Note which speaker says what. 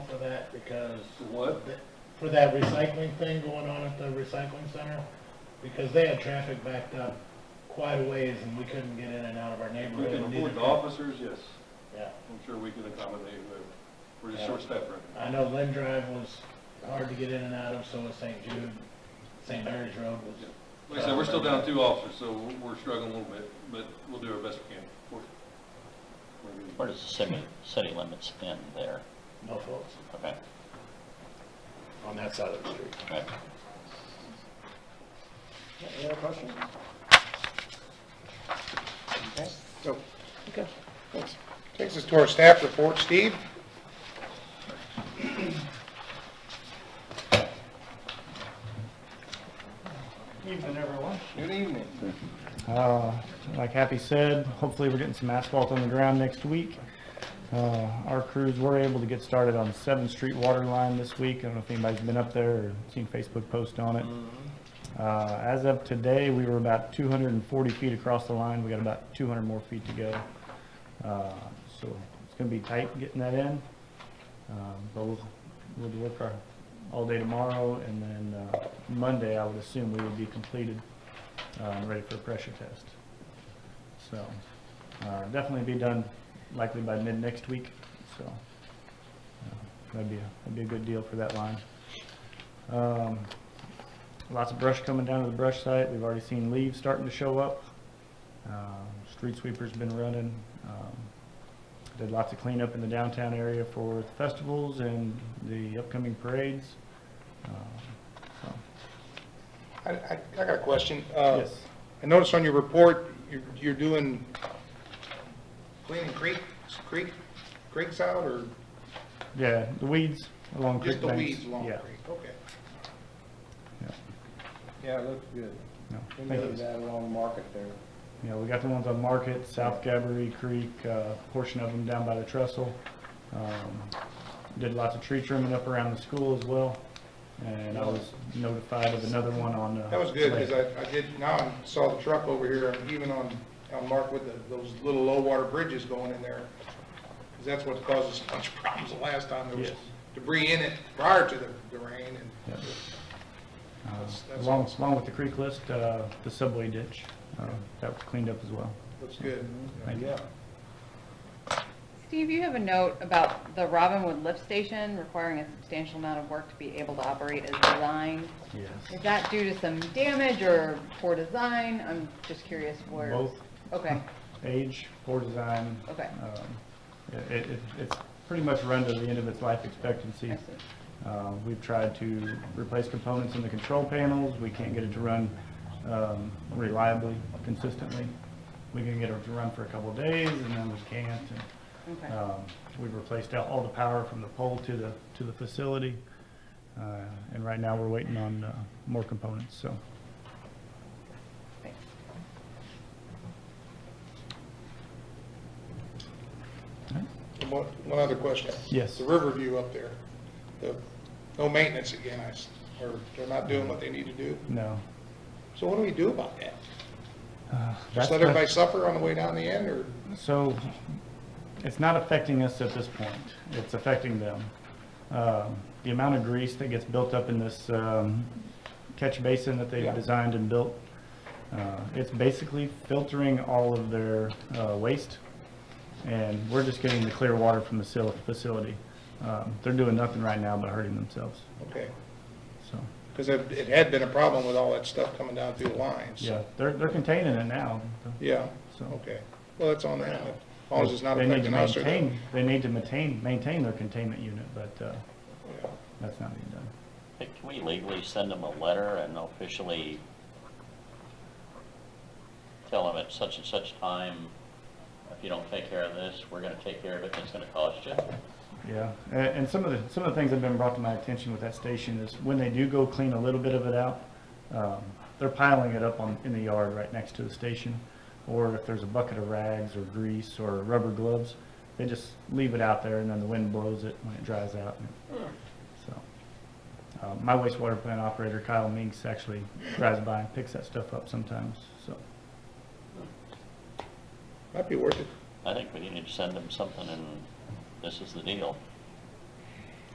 Speaker 1: that because
Speaker 2: What?
Speaker 1: th- for that recycling thing going on at the recycling center, because they had traffic backed up quite a ways and we couldn't get in and out of our
Speaker 2: We
Speaker 1: neighborhood.
Speaker 2: can
Speaker 1: and neither
Speaker 2: afford the
Speaker 1: could-
Speaker 2: officers, yes.
Speaker 1: Yeah,
Speaker 2: I'm sure we can accommodate whoever. We're just
Speaker 1: Yeah.
Speaker 2: short staffed right now.
Speaker 1: I know Lynn Drive was hard to get in and out of, so was St. Jude, St. Mary's Road was,
Speaker 2: Like I said, we're still down two officers, so we're- we're struggling a little bit, but we'll do our best we can for you. We're gonna-
Speaker 3: Where does the city, city limits end there?
Speaker 1: no faults
Speaker 3: Okay,
Speaker 1: on that side of the street.
Speaker 3: okay.
Speaker 4: Any other questions? Okay,
Speaker 5: So,
Speaker 4: okay, thanks.
Speaker 5: takes us to our staff report, Steve?
Speaker 4: Evening, everyone.
Speaker 5: Good evening.
Speaker 6: Uh, Like Happy said, hopefully we're getting some asphalt on the ground next week. Uh, Our crews were able to get started on 7th Street water line this week. I don't know if anybody's been up there or seen Facebook post on it. Uh, As of today, we were about 240 feet across the line. We got about 200 more feet to go. Uh, So it's going to be tight getting that in. Um, But we'll we'll work our, all day tomorrow, and then uh, Monday, I would assume we would be completed um, ready for a pressure test. So, uh, definitely be done likely by mid next week, so, uh, that'd be, a- that'd be a good deal for that line. Um, Lots of brush coming down to the brush site, we've already seen leaves starting to show up. Um, Street sweeper's been running, um, did lots of cleanup in the downtown area for festivals and the upcoming parades. Um, so,
Speaker 5: I, I, I got a question. Uh,
Speaker 6: Yes,
Speaker 5: I noticed on your report, you're, you're doing cleaning creek, creek, creeks out or
Speaker 6: yeah, the weeds along creek
Speaker 5: just the
Speaker 6: banks.
Speaker 5: weeds along
Speaker 6: Yeah.
Speaker 5: creek? Okay.
Speaker 4: Yeah, it looks good.
Speaker 6: No,
Speaker 4: We
Speaker 6: thank
Speaker 4: moved
Speaker 6: you.
Speaker 4: that along Market there.
Speaker 6: Yeah, we got the ones on Market, South Gabory Creek, uh, portion of them down by the trestle. Um, Did lots of tree trimming up around the school as well, and I was notified of another one on.
Speaker 5: That was good, because I, I did, now I saw the truck over here, and even on, on Mark with the, those little low water bridges going in there. Because that's what caused us a bunch of problems the last time, there was
Speaker 6: Yes.
Speaker 5: debris in it prior to the, the rain, and That's- that's
Speaker 6: Uh, Along,
Speaker 5: awesome.
Speaker 6: along with the creek list, uh, the subway ditch, uh, that was cleaned up as well.
Speaker 5: looks good.
Speaker 6: Mm-hmm. Thank you.
Speaker 7: Steve, you have a note about the Robinwood lift station requiring a substantial amount of work to be able to operate as designed.
Speaker 6: Yes.
Speaker 7: Is that due to some damage or poor design? I'm just curious where.
Speaker 6: Both
Speaker 7: Okay,
Speaker 6: age, poor design.
Speaker 7: Okay.
Speaker 6: um, It, it, it's pretty much run to the end of its life
Speaker 7: I
Speaker 6: expectancy.
Speaker 7: see.
Speaker 6: Uh, We've tried to replace components in the control panels. We can't get it to run um, reliably, consistently. We can get it to run for a couple of days and then we can't. and,
Speaker 7: okay.
Speaker 6: um, We've replaced out all the power from the pole to the, to the facility. Uh, And right now, we're waiting on uh, more components, so.
Speaker 7: Thanks.
Speaker 5: And One, one other question.
Speaker 6: Yes.
Speaker 5: The Riverview up there, the, no maintenance again, I, s- or they're not doing what they need to do.
Speaker 6: No.
Speaker 5: So what do we do about that?
Speaker 6: Uh, that's
Speaker 5: Just let
Speaker 6: the-
Speaker 5: everybody suffer on the way down the end, or?
Speaker 6: So it's not affecting us at this point. It's affecting them. Um, The amount of grease that gets built up in this um, catch basin that they've
Speaker 5: Yeah.
Speaker 6: designed and built, uh, it's basically filtering all of their uh, waste, and we're just getting the clear water from the sil- facility. Um, They're doing nothing right now but hurting themselves,
Speaker 5: Okay,
Speaker 6: so,
Speaker 5: because it it had been a problem with all that stuff coming down through the lines.
Speaker 6: yeah, they're they're containing it now.
Speaker 5: Yeah,
Speaker 6: So-
Speaker 5: okay. Well, that's on them. As long as it's not
Speaker 6: They need to
Speaker 5: affecting us or them.
Speaker 6: maintain- They need to maintain, maintain their containment unit, but uh,
Speaker 5: Yeah.
Speaker 6: that's not being done.
Speaker 3: Hey, Can we legally send them a letter and officially tell them at such and such time, if you don't take care of this, we're gonna take care of it, and it's gonna cost you?
Speaker 6: Yeah, a- and some of the, some of the things that have been brought to my attention with that station is when they do go clean a little bit of it out, um, they're piling it up on, in the yard right next to the station. Or if there's a bucket of rags or grease or rubber gloves, they just leave it out there and then the wind blows it when it dries out. and- So, uh, my wastewater plant operator Kyle Minks actually drives by and picks that stuff up sometimes, so.
Speaker 5: Might be worth it.
Speaker 3: I think we need to send them something and this is the deal.